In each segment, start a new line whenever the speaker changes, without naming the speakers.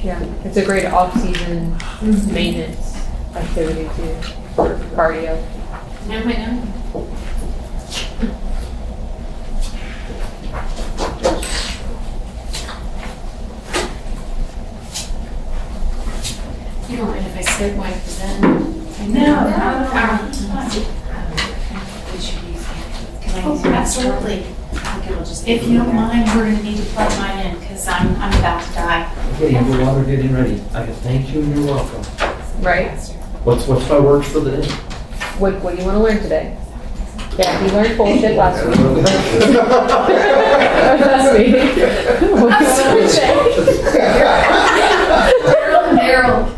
Yeah, it's a great off-season maintenance activity too, for cardio.
No, I know. You don't mind if I segue for that?
No, no,
Um, no.
Oh, Absolutely. If you don't mind, we're gonna need to plug mine in, because I'm, I'm about to die.
Okay, you the water getting ready. I can thank you and you're welcome.
Right?
What's, what's my words for the day?
What, what do you want to learn today? Yeah, you learned bullshit last week. Last week. What do you wanna learn today?
Daryl.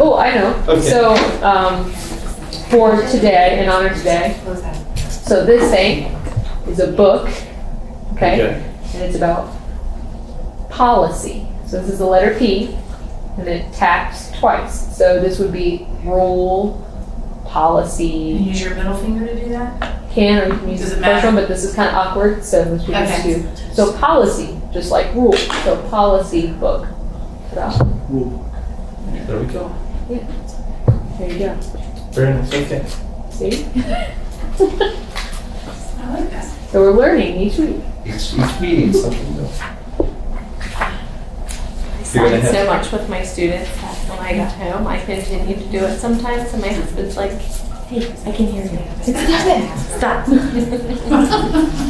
Oh, I know.
Okay.
So, um, for today, in honor of today, so this thing is a book, okay? and it's about policy. So this is the letter P, and it taps twice. So this would be rule,
You
policy,
Use your middle finger to do that?
can, or you can use
Does
the
it
first one,
matter?
but this is kind of awkward, so this we just
Okay.
do. So policy, just like rule, so policy book. Ta-da.
There we go.
There you go.
Very nice, okay.
See?
I like that.
So we're learning each week.
Each, each meeting something new. You're gonna
I
have-
so much with my students that when I got home, I continued to do it sometimes, and my husband's like, hey, I can hear you. Stop it, stop.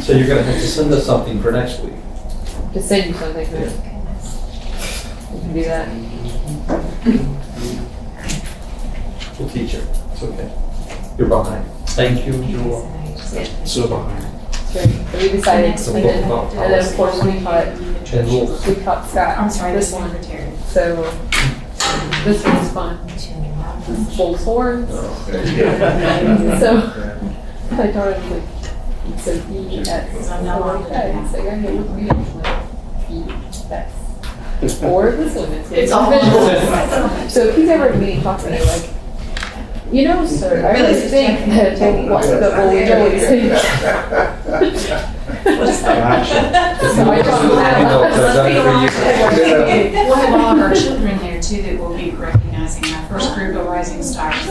So you're gonna have to send us something for next week.
To send you something.
Yeah.
We can do that.
We'll teach her. It's okay. You're behind. Thank you and you're welcome. So behind.
Sure. So we decided,
So
we
we'll
did.
talk
and then of
policy.
course we taught,
And we'll,
we taught Scott.
I'm sorry,
This
this
one.
one, Terry.
So this one's fun. Bull's horns. So I thought it was like so E S.
Because I'm not on
Okay,
it.
so I hit me like E S. Or this one.
It's all.
So if he's ever at a meeting talking to me like, you know, sir, I really think that what the old always think. So I don't have.
We'll have all of our children there too that will be recognizing our first group of rising stars. I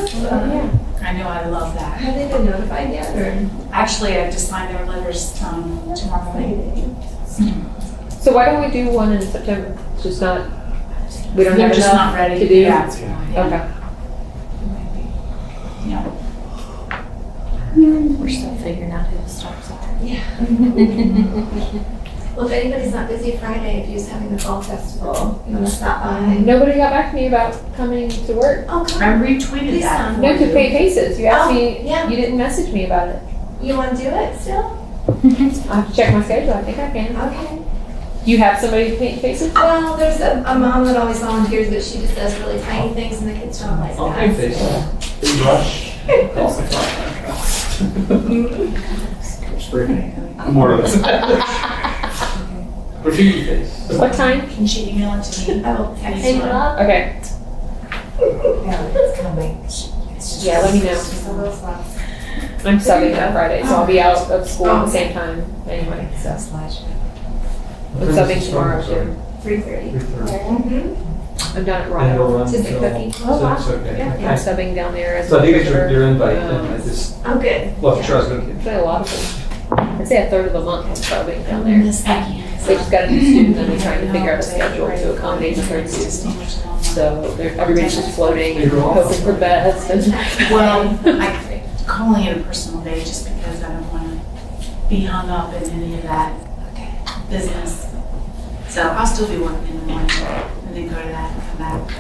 know, I love that.
Have they been notified yet, or?
Actually, I've just signed their letters um, tomorrow morning.
So why don't we do one in September? It's just not, we don't
They're
have
just
enough
not ready
to do.
Yeah.
Okay.
Yeah.
We're still figuring out who the stars are.
Well, if anybody's not busy Friday, if you're just having the fall festival, you want to stop by.
Nobody got back to me about coming to work.
Oh,
I
come on.
retweeted
Please
that.
don't.
No to pay cases. Oh, You asked
Oh,
me,
yeah.
you didn't message me about it.
You want to do it still?
I have to check my schedule. I think I can.
Okay.
You have somebody to paint faces?
Well, there's a, a mom that always volunteers, but she just does really tiny things and the kids don't like
I'll pay
that.
this. Big rush.
More of us.
What do you face?
What time?
Can she email it to me?
I will text
Hey,
you.
love.
Okay. Yeah, let me know.
Just a little slow.
I'm subbing on Friday, so I'll be out of school at the same time anyway. So I'm subbing tomorrow too.
Three thirty.
Three thirty.
Mm-hmm.
I'm down at
And it'll
Ryan.
run
To the
till-
cookie.
Oh,
So it's okay.
I'm subbing down there as
So
well.
I think it's your, your invite,
Um,
and I just,
I'm good.
well, sure, I was gonna get.
Play a lot of them. I'd say a third of the month I'm subbing down there.
This weekend.
We just got a new student and we're trying to figure out a schedule to accommodate the third student. So they're- everybody's just floating and hoping for best and.
Well, I, calling it a personal day just because I don't wanna be hung up in any of that business. So I'll still be working in the morning and then go to that and come back.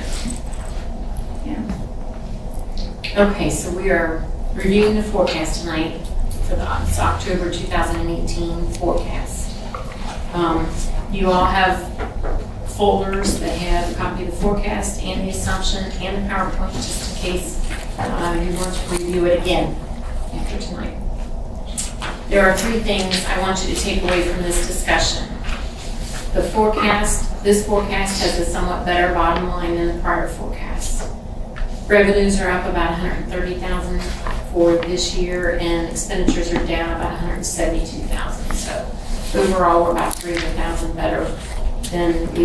but, Yeah.
Okay, so we are reviewing the forecast tonight for the it's October 2018 forecast. Um, You all have folders that have a copy of the forecast and the assumption and the PowerPoint, just in case uh, you want to review it again after tonight. There are three things I want you to take away from this discussion. The forecast, this forecast has a somewhat better bottom line than the prior forecast. Revenues are up about 130,000 for this year, and expenditures are down about 172,000. So overall, we're about 300,000 better than we